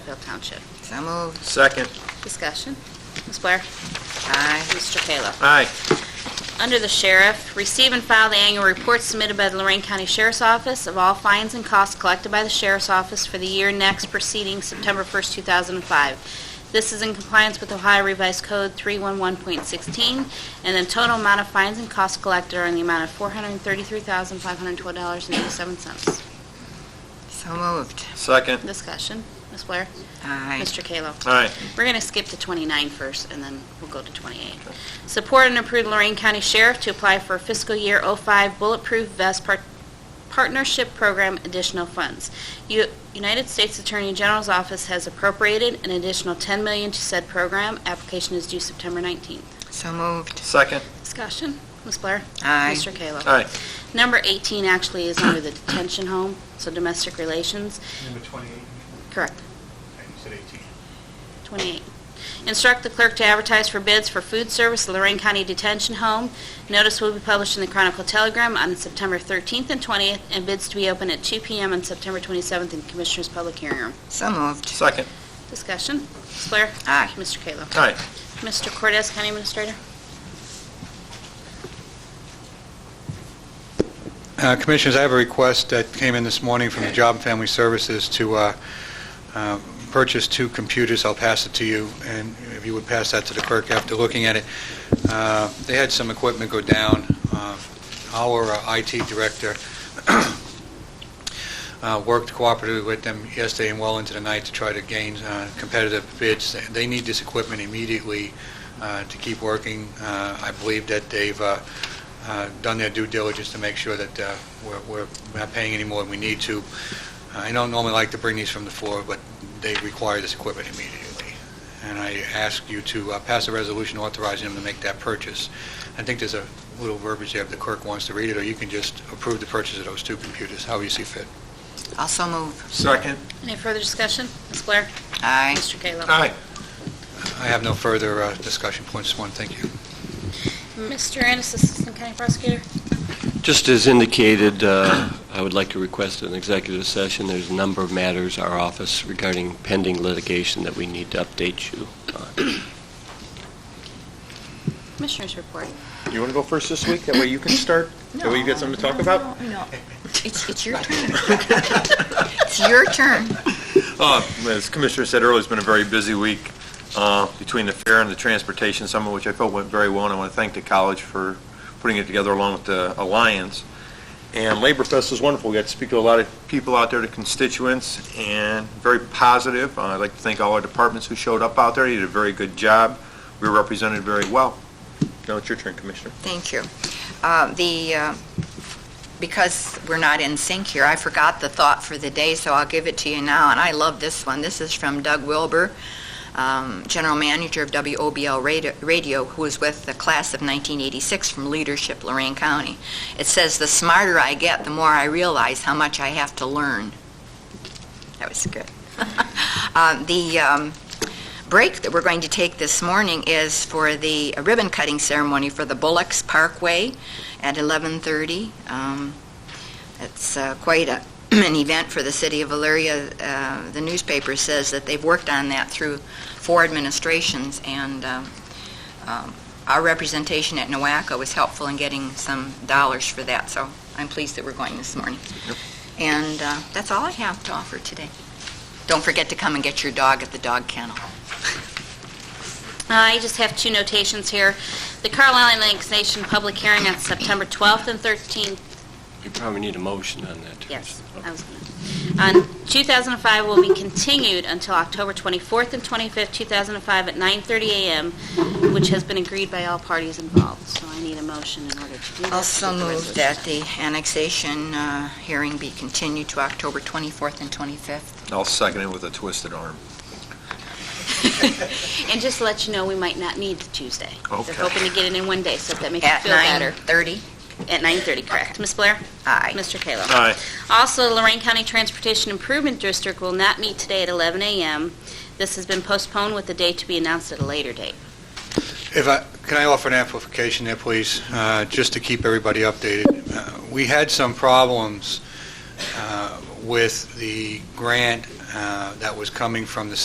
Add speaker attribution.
Speaker 1: Bill Township.
Speaker 2: So moved.
Speaker 3: Second.
Speaker 1: Discussion. Ms. Blair?
Speaker 2: Aye.
Speaker 1: Mr. Kayla?
Speaker 3: Aye.
Speaker 1: Under the Sheriff, receive and file the annual report submitted by the Lorraine County Sheriff's Office of all fines and costs collected by the Sheriff's Office for the year next preceding September 1st, 2005. This is in compliance with Ohio Revised Code 311.16, and the total amount of fines and costs collected are in the amount of $433,512.87.
Speaker 2: So moved.
Speaker 3: Second.
Speaker 1: Discussion. Ms. Blair?
Speaker 2: Aye.
Speaker 1: Mr. Kayla?
Speaker 3: Aye.
Speaker 1: We're going to skip to 29 first, and then we'll go to 28. Support and approve Lorraine County Sheriff to apply for fiscal year '05 Bulletproof Vest Par- Partnership Program additional funds. U- United States Attorney General's Office has appropriated an additional $10 million to said program. Application is due September 19th.
Speaker 2: So moved.
Speaker 3: Second.
Speaker 1: Discussion, Ms. Blair?
Speaker 2: Aye.
Speaker 1: Mr. Kayla?
Speaker 3: Aye.
Speaker 1: Number 18 actually is under the detention home, so domestic relations.
Speaker 4: Number 28, and
Speaker 1: Correct.
Speaker 4: you said 18.
Speaker 1: 28. Instruct the clerk to advertise for bids for food service at Lorraine County Detention Home. Notice will be published in the Chronicle Telegram on September 13th and 20th, and bids to be open at 2 PM on September 27th in Commissioners' Public Hearing Room.
Speaker 2: So moved.
Speaker 3: Second.
Speaker 1: Discussion. Ms. Blair?
Speaker 2: Aye.
Speaker 1: Mr. Kayla?
Speaker 3: Aye.
Speaker 1: Mr. Cortez, County Administrator?
Speaker 5: Uh, Commissioners, I have a request that came in this morning from the Job and Family Services to uh, uh, purchase two computers. I'll pass it to you, and if you would pass that to the clerk after looking at it. Uh, They had some equipment go down. Uh, Our uh, IT director uh, worked cooperatively with them yesterday and well into the night to try to gain uh, competitive bids. They need this equipment immediately uh, to keep working. Uh, I believe that they've uh, uh, done their due diligence to make sure that uh, we're we're not paying any more than we need to. Uh, I don't normally like to bring these from the floor, but they require this equipment immediately. And I ask you to uh, pass a resolution authorizing them to make that purchase. I think there's a little verbiage there if the clerk wants to read it, or you can just approve the purchase of those two computers, however you see fit.
Speaker 2: Also moved.
Speaker 3: Second.
Speaker 1: Any further discussion? Ms. Blair?
Speaker 2: Aye.
Speaker 1: Mr. Kayla?
Speaker 3: Aye.
Speaker 5: I have no further uh, discussion points, just want to thank you.
Speaker 1: Mr. Ennis, Assistant County Prosecutor?
Speaker 6: Just as indicated, uh, I would like to request an executive session. There's a number of matters, our office regarding pending litigation that we need to update you on.
Speaker 1: Commissioners report.
Speaker 3: You want to go first this week? That way you can start? That way you got something to talk about?
Speaker 2: No, it's, it's your turn. It's your turn.
Speaker 3: Uh, As Commissioner said earlier, it's been a very busy week uh, between the fair and the transportation summit, which I felt went very well, and I want to thank the college for putting it together along with the Alliance. And Labor Fest was wonderful. We got to speak to a lot of people out there, the constituents, and very positive. Uh, I'd like to thank all our departments who showed up out there. You did a very good job. We were represented very well. Now it's your turn, Commissioner.
Speaker 2: Thank you. Uh, The, uh, because we're not in sync here, I forgot the thought for the day, so I'll give it to you now, and I love this one. This is from Doug Wilbur, um, General Manager of WOBL Radio- Radio, who was with the class of 1986 from Leadership Lorraine County. It says, "The smarter I get, the more I realize how much I have to learn." That was good. Uh, The um, break that we're going to take this morning is for the ribbon cutting ceremony for the Bullocks Parkway at 11:30. Um, It's uh, quite a- an event for the city of Elyria. Uh, The newspaper says that they've worked on that through four administrations, and um, um, our representation at NOACA was helpful in getting some dollars for that, so I'm pleased that we're going this morning. And uh, that's all I have to offer today. Don't forget to come and get your dog at the dog kennel.
Speaker 1: I just have two notations here. The Carlisle Annexation Public Hearing on September 12th and 13th
Speaker 6: You probably need a motion on that. too.
Speaker 1: Yes, I was Um, going to. On 2005 will be continued until October 24th and 25th, 2005, at 9:30 a.m., which has been agreed by all parties involved. So I need a motion in order to do that.
Speaker 2: Also move that the annexation uh, hearing be continued to October 24th and 25th.
Speaker 3: I'll second it with a twisted arm.
Speaker 1: And just to let you know, we might not need the Tuesday.
Speaker 3: Okay.
Speaker 1: They're hoping to get it in one day, so if that makes you
Speaker 2: At
Speaker 1: feel better.
Speaker 2: 9:30?
Speaker 1: At 9:30, correct. Ms. Blair?
Speaker 2: Aye.
Speaker 1: Mr. Kayla?
Speaker 3: Aye.
Speaker 1: Also, Lorraine County Transportation Improvement District will not meet today at 11 a.m. This has been postponed with the date to be announced at a later date.
Speaker 5: If I, can I offer an amplification there, please, uh, just to keep everybody updated? Uh, We had some problems uh, with the grant uh, that was coming from the